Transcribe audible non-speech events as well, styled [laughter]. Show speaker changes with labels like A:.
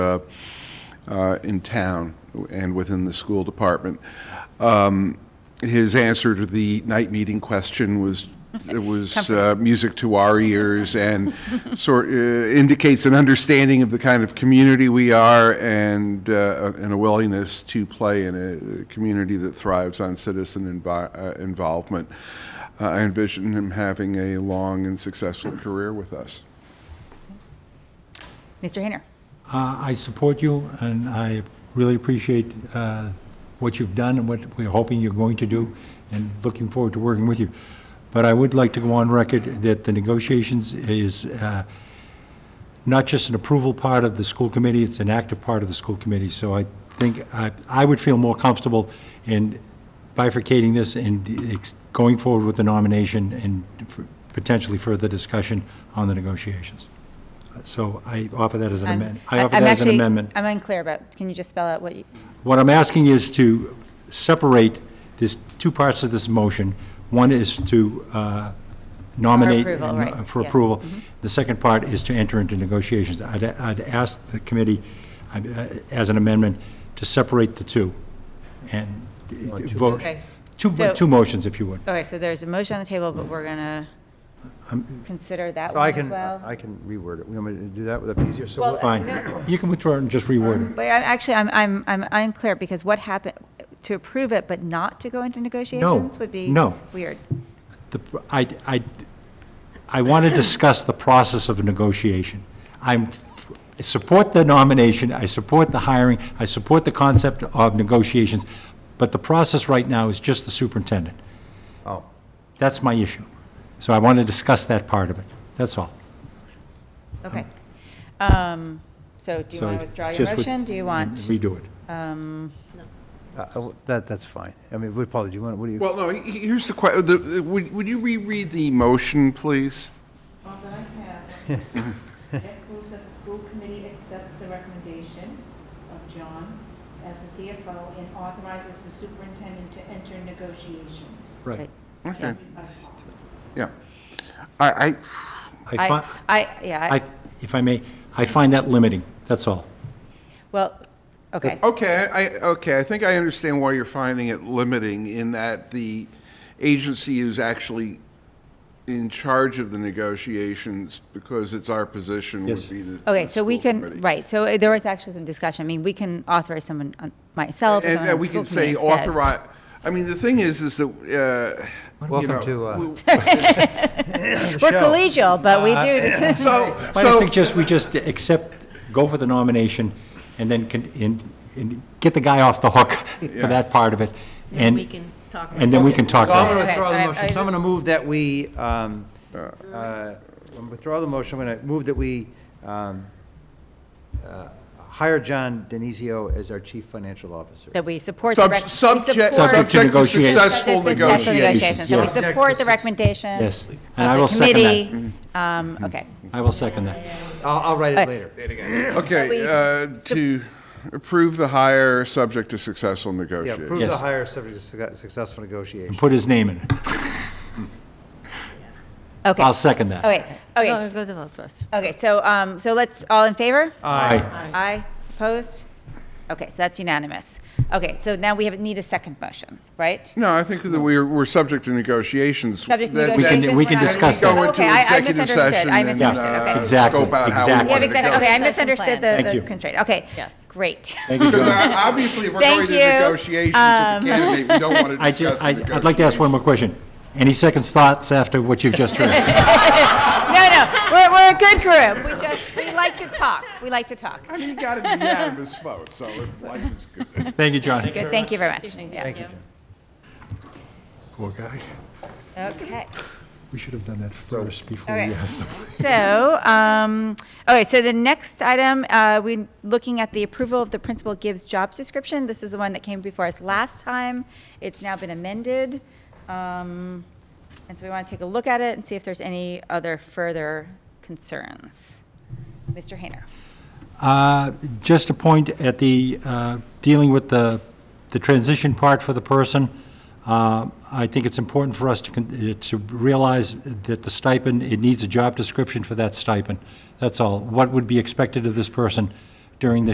A: uh, uh, in town and within the school department. Um, His answer to the night meeting question was, it was uh, music to our ears and sort, uh, indicates an understanding of the kind of community we are and, uh, and a willingness to play in a community that thrives on citizen envi- uh, involvement. Uh, I envision him having a long and successful career with us.
B: Mr. Hayner.
C: Uh, I support you, and I really appreciate uh, what you've done and what we're hoping you're going to do, and looking forward to working with you. But I would like to go on record that the negotiations is uh, not just an approval part of the school committee, it's an active part of the school committee. So I think, I I would feel more comfortable in bifurcating this and ex- going forward with the nomination and f- potentially further discussion on the negotiations. So I offer that as an
B: I'm-
C: amendment. I
B: I-
C: offer
B: I'm
C: that as an
B: actually-
C: amendment.
B: I'm unclear about, can you just spell out what you,
C: What I'm asking is to separate this, two parts of this motion. One is to uh, nominate.
B: approval,
C: uh,
B: right,
C: For
B: yeah. Mm-hmm.
C: approval. The second part is to enter into negotiations. I'd, I'd ask the committee, I- uh, as an amendment, to separate the two and vote.
B: okay.
C: Two,
B: So-
C: two motions, if you would.
B: Okay, so there's a motion on the table, but we're going to consider that
D: So Oh, I
B: one as
D: can,
B: well?
D: I can reword it. We want me to do that? Would that be easier? So
B: Well, uh,
D: what-
C: Fine.
B: no.
C: You can withdraw and just reword it.
B: But I- actually, I'm, I'm, I'm unclear, because what happened, to approve it but not to go into negotiations would be
C: no.
B: weird.
C: The pr- I, I, I want to discuss the process of negotiation. I'm, I support the nomination, I support the hiring, I support the concept of negotiations, but the process right now is just the superintendent.
D: Oh,
C: That's my issue. So I want to discuss that part of it, that's all.
B: Okay. Um, So do you
C: So
B: want to withdraw your
C: just with-
B: motion? Do you want,
C: Redo it.
D: I- I- uh, that, that's fine. I mean, we probably, do you want, what do you,
A: Well, no, he- here's the question, would would you reread the motion, please?
E: All that I have, it proves that the school committee accepts the recommendation of John as the CFO and authorizes the superintendent to enter negotiations.
C: Right.
A: Okay,
E: Us.
A: yeah. I, I,
C: I,
B: I,
C: fi-
B: I, yeah, I-
C: I, if I may, I find that limiting, that's all.
B: well, okay.
A: okay, I, okay, I think I understand why you're finding it limiting in that the agency is actually in charge of the negotiations because it's our position
C: Yes.
A: would be the.
B: Okay,
A: the
B: so we
A: school committee.
B: can, right, so uh, there was actually some discussion. I mean, we can authorize someone, on- myself, or
A: And
B: someone
A: uh,
B: on the
A: we
B: school
A: can say
B: committee instead.
A: authorize, I mean, the thing is, is that, uh. you
D: welcome
A: know,
D: to,
B: [laughs]
D: uh,
A: we-
B: We're
D: Michelle.
B: collegial, but
C: Uh,
B: we
C: [clears throat]
B: do, [laughs]
A: So,
C: But I
A: so,
C: suggest we just accept, go for the nomination, and then, con- and, and get the guy off the hook [laughs] for that part of it, and. we can talk. And then we can talk
D: So I'm
C: about
D: going
C: it.
D: to withdraw
B: Okay, I-
D: the
B: I
D: motion. So I'm
B: just-
D: going to move that we, um, uh, I'm withdraw the motion, I'm going to move that we um, uh, hire John Denizio as our chief financial officer.
B: that we support the. rec-
A: sub-
B: we
A: subject,
B: support-
A: subject to
C: negotiations.
A: successful
B: Subject to successful
A: negotiations.
B: negotiations. So we
C: Yes.
B: support the recommendation.
C: Yes.
B: of
C: And
B: the
C: I will second that. Mm-hmm.
B: committee. Um, okay.
C: I will second that.
D: I'll, I'll write
B: Uh,
D: it later.
A: Okay,
B: Please,
A: uh, to approve the hire, subject to successful
D: Yeah, approve
A: negotiations.
D: the
C: Yes.
D: hire subject to suc- successful
C: And
D: negotiation.
C: put his name in it.
B: Okay.
C: I'll second that.
B: Okay, okay,
F: No,
B: s-
F: go to vote first.
B: okay, so, um, so let's, all in favor?
C: Aye.
B: Aye, opposed? Okay, so that's unanimous. Okay, so now we have, need a second motion,
C: Mm-hmm.
B: right?
A: No, I think that we're, we're subject to negotiations.
B: Subject to
A: That- that-
B: negotiations.
C: we can
B: we're not-
C: discuss that.
A: Go into
B: Okay, I- I
A: executive
B: misunderstood.
A: session
B: I
A: and
B: misunderstood,
A: uh,
B: okay.
C: Exactly,
A: scope out how we
C: exactly.
B: Yeah,
A: want to
B: because, okay, I
A: go.
F: Session
B: misunderstood the
F: plan.
C: Thank
B: the
C: you.
B: constraint. Okay,
F: Yes.
B: great. [laughs]
C: Thank you,
A: Because
C: John.
A: I- obviously, if we're going
B: Thank
A: to
B: you. Um,
A: negotiations with the candidate, we don't want to
C: [laughs] I ju-
A: discuss the
C: I,
A: negotiations.
C: I'd like to ask one more question. Any second thoughts after what you've just [laughs] heard?
B: No, no, we're, we're a good group. We just, we like to talk. We like to talk.
A: I mean, you got to be unanimous vote, so if life is good.
C: Thank you, John.
B: Good, thank you very much. Yeah.
D: Thank you, John.
C: Poor guy.
B: Okay,
C: We should have done that first before
B: we Okay.
C: asked him.
B: so, um, okay, so the next item, uh, we, looking at the approval of the principal gives jobs description. This is the one that came before us last time. It's now been amended. Um, and so we want to take a look at it and see if there's any other further concerns. Mr. Hayner.
C: Uh, Just a point at the, uh, dealing with the, the transition part for the person, uh, I think it's important for us to, con- uh, to realize that the stipend, it needs a job description for that stipend. That's all. What would be expected of this person during the